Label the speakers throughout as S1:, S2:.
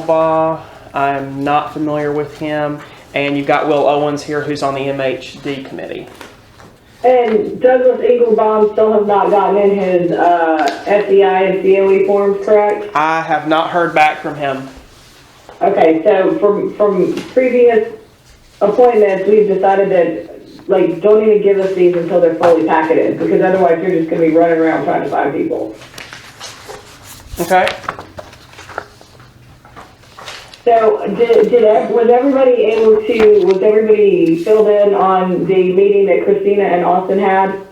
S1: Engelbaugh. I'm not familiar with him. And you've got Will Owens here, who's on the MHD committee.
S2: And Douglas Engelbaum still has not gotten in his uh, SEI and COE forms, correct?
S1: I have not heard back from him.
S2: Okay, so from from previous appointments, we've decided that like don't even give us these until they're fully packeted because otherwise you're just gonna be running around trying to find people.
S1: Okay.
S2: So did did ev- was everybody able to was everybody filled in on the meeting that Christina and Austin had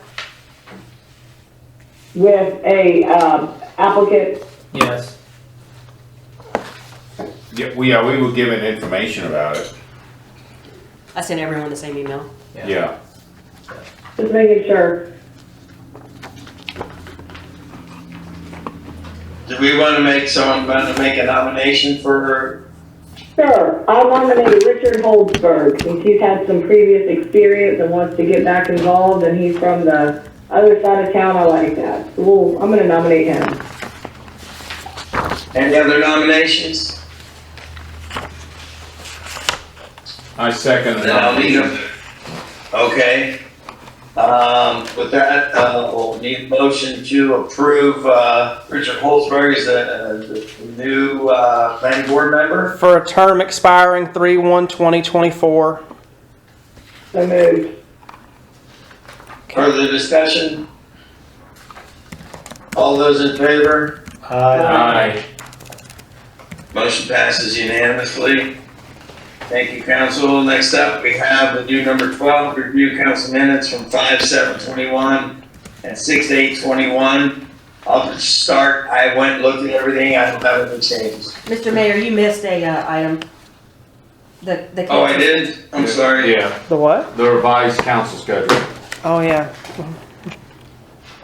S2: with a uh, applicant?
S3: Yes.
S4: Yeah, we, yeah, we were given information about it,
S5: I sent everyone the same email.
S4: yeah.
S2: Just making sure.
S6: Do we want to make someone want to make a nomination for her?
S2: Sure, I nominate Richard Holdsberg, since he's had some previous experience and wants to get back involved, and he's from the other side of town, I like that. So we'll I'm gonna nominate him.
S6: Any other nominations?
S4: I second the
S6: Then I'll need
S4: nomination.
S6: them. Okay. Um, with that, uh, we'll need a motion to approve, uh, Richard Holzberg as a, a new, uh, planning board member.
S1: For a term expiring 3 1 2024.
S2: So moved.
S6: Further discussion? All those in favor?
S4: Aye.
S6: Motion passes unanimously. Thank you, council. Next up, we have the new number twelve, review council minutes from five, seven, twenty-one and six, eight, twenty-one. I'll just start. I went, looked at everything. I don't have any changes.
S5: Mr. Mayor, you missed a, uh, item. The, the.
S6: Oh, I did? I'm sorry.
S4: Yeah,
S1: The what?
S4: the revised council schedule.
S1: Oh, yeah.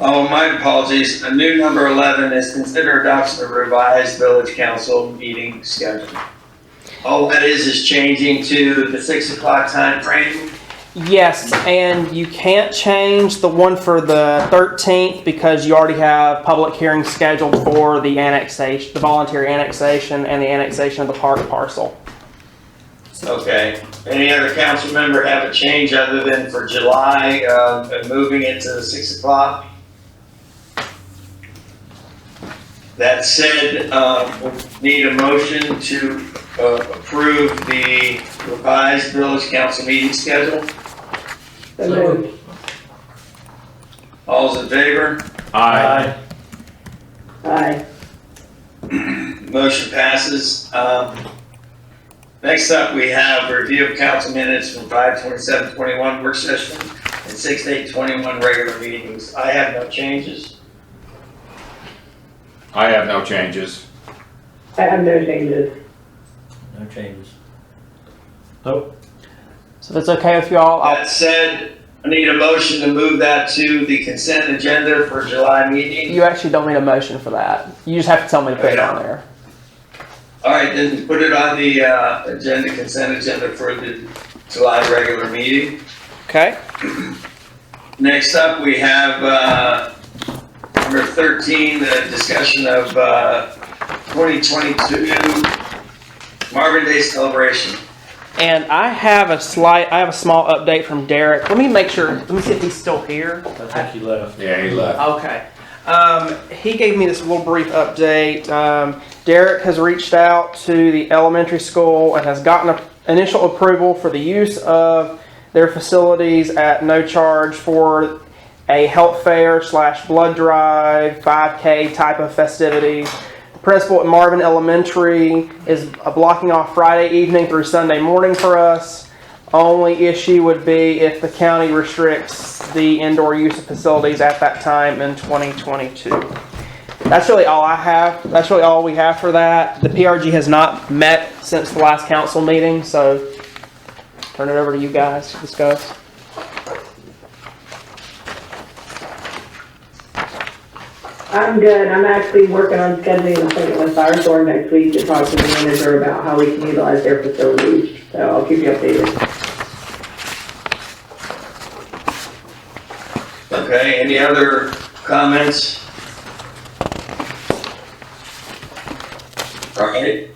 S6: Oh, my apologies. A new number eleven is consider adoption of revised village council meeting schedule. All that is, is changing to the six o'clock time frame.
S1: Yes, and you can't change the one for the 13th because you already have public hearings scheduled for the annexation, the voluntary annexation, and the annexation of the park parcel.
S6: Okay. Any other council member have a change other than for July, uh, and moving it to six o'clock? That said, uh, we need a motion to, uh, approve the revised village council meeting schedule.
S2: So moved.
S6: All's in favor?
S4: Aye.
S2: Aye.
S6: Motion passes. Um, Next up, we have review of council minutes from five twenty-seven twenty-one work session and six eight twenty-one regular meetings. I have no changes.
S4: I have no changes.
S2: I have no changes.
S3: No changes.
S1: So if it's okay with y'all, I'll
S6: That said, I need a motion to move that to the consent agenda for July meeting.
S1: You actually don't need a motion for that. You just have to tell me to put it on there.
S6: All right, then put it on the, uh, agenda, consent agenda for the July regular meeting.
S1: Okay.
S6: Next up, we have, uh, number thirteen, the discussion of, uh, twenty twenty-two Marvin Day celebration.
S1: And I have a slight, I have a small update from Derek. Let me make sure. Let me see if he's still here.
S3: I think you left.
S4: Yeah, he left.
S1: Okay. Um, he gave me this little brief update. Um, Derek has reached out to the elementary school and has gotten a, initial approval for the use of their facilities at no charge for a health fair slash blood drive, 5K type of festivities. The principal at Marvin Elementary is uh, blocking off Friday evening through Sunday morning for us. Only issue would be if the county restricts the indoor use of facilities at that time in 2022. That's really all I have. That's really all we have for that. The PRG has not met since the last council meeting, so turn it over to you guys to discuss.
S2: I'm good, I'm actually working on scheduling an appointment with Firestore next week to talk to the manager about how we can utilize their facilities, so I'll keep you updated.
S6: Okay, any other comments? All right,